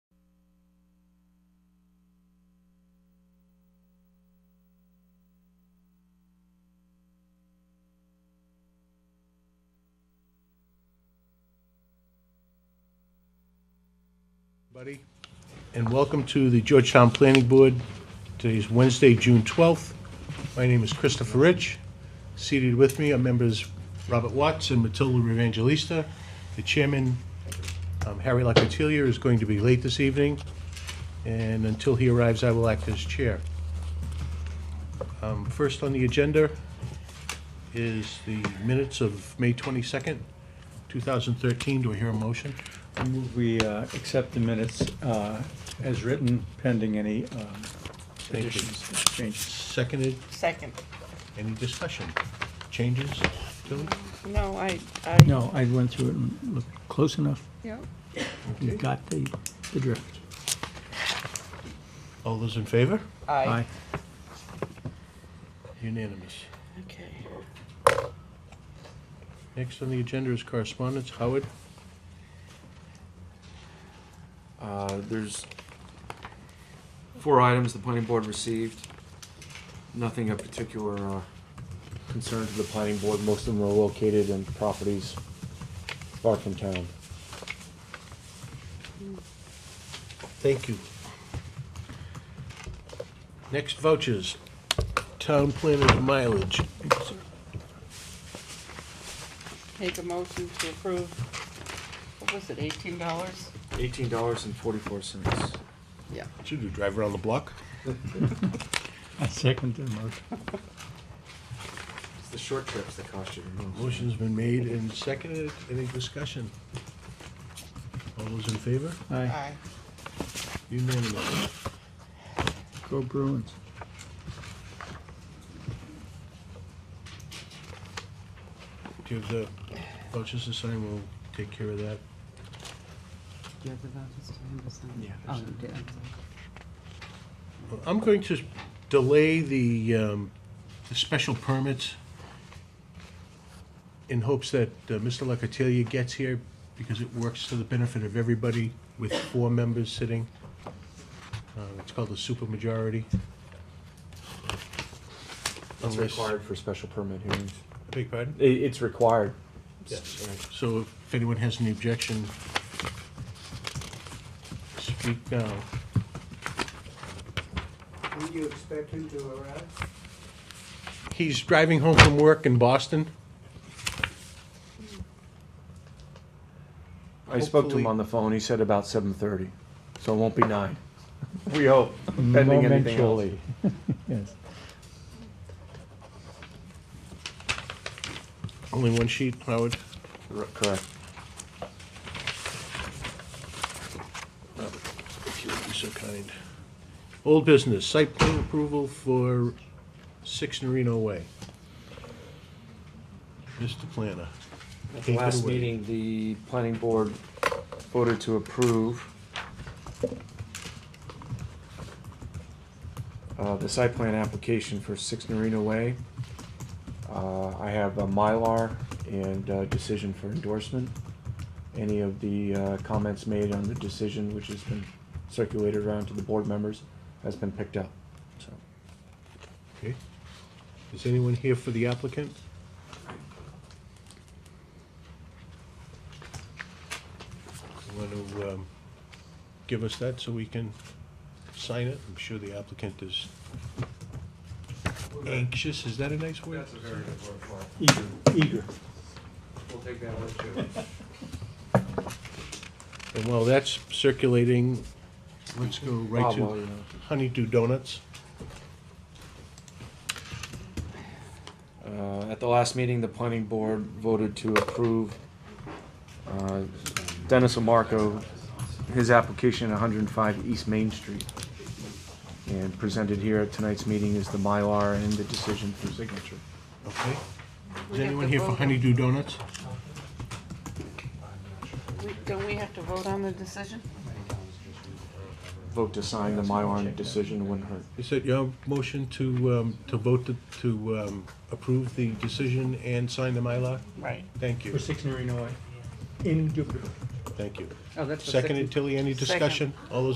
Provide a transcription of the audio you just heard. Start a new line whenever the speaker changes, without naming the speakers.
Buddy, and welcome to the Georgetown Planning Board. Today is Wednesday, June 12th. My name is Christopher Rich. Seated with me are members Robert Watts and Matilda Evangelista. The chairman, um, Harry Locatilia, is going to be late this evening, and until he arrives, I will act as chair. Um, First on the agenda is the minutes of May 22nd, 2013. Do I hear a motion?
I move We uh, accept the minutes uh, as written pending any um,
you.
additions, changes.
Seconded.
Second.
Any discussion? Changes? Tilly?
No, I, I.
No, I went through it and looked close enough,
Yeah.
you got the, the drift.
All those in favor?
Aye.
Unanimous.
Okay.
Next on the agenda is correspondence. Howard?
Uh, There's four items the planning board received. Nothing of particular uh, concern to the planning board. Most of them are located in properties far from town.
Thank you. Next vouchers. Town planner's mileage.
Make a motion to approve, what was it, eighteen dollars?
Eighteen dollars and forty-four cents.
Yeah.
Should you drive around the block?
I second the motion.
It's the short trips that cost you the most.
Motion's been made and seconded. Any discussion? All those in favor?
Aye.
Aye.
Unanimous.
Go Bruins.
Do you have the vouchers to sign? We'll take care of that.
Do you have the vouchers to him to sign?
Yeah.
Oh, you did.
I'm going to delay the, um, the special permits in hopes that uh, Mr. Locatilia gets here, because it works to the benefit of everybody with four members sitting. Uh, It's called the supermajority.
It's
Unless-
required for special permit hearings.
Beg your pardon?
I- It's required.
Yes.
Right.
So if anyone has any objection, speak now.
When you expect him to arrive?
He's driving home from work in Boston.
I spoke to
Hopefully-
him on the phone. He said about seven thirty, so it won't be nine. We hope, pending anything else.
Momentarily. Yes.
Only one sheet, Howard.
R- Correct.
Robert, if you would be so kind. Old business, site plan approval for Six Norino Way. Mr. Planner.
At
Take
the
it
last
away.
meeting, the planning board voted to approve uh, the site plan application for Six Norino Way. Uh, I have a Mylar and uh decision for endorsement. Any of the uh, comments made on the decision, which has been circulated around to the board members, has been picked up, so.
Okay. Is anyone here for the applicant? Want to um, give us that so we can sign it? I'm sure the applicant is anxious. Is that a nice word?
a very good word for it.
Eager, eager.
We'll take that one too.
And while that's circulating, let's go right
Bob, while
to
you're-
Honeydew Donuts.
Uh, At the last meeting, the planning board voted to approve uh, Dennis Amarco, his application at 105 East Main Street. And presented here at tonight's meeting is the Mylar and the decision for signature.
Okay.
We
Is
have
anyone
to
here for
vote on-
Honeydew Donuts?
We- Don't we have to vote on the decision?
Vote to sign the Mylar and decision wouldn't hurt.
Is it your motion to, um, to vote to, to um, approve the decision and sign the Mylar?
Right.
Thank you,
For six Norino Way. In Dubuque.
thank you.
Oh, that's the
Seconded,
second.
Tilly, any
Second.
discussion? All those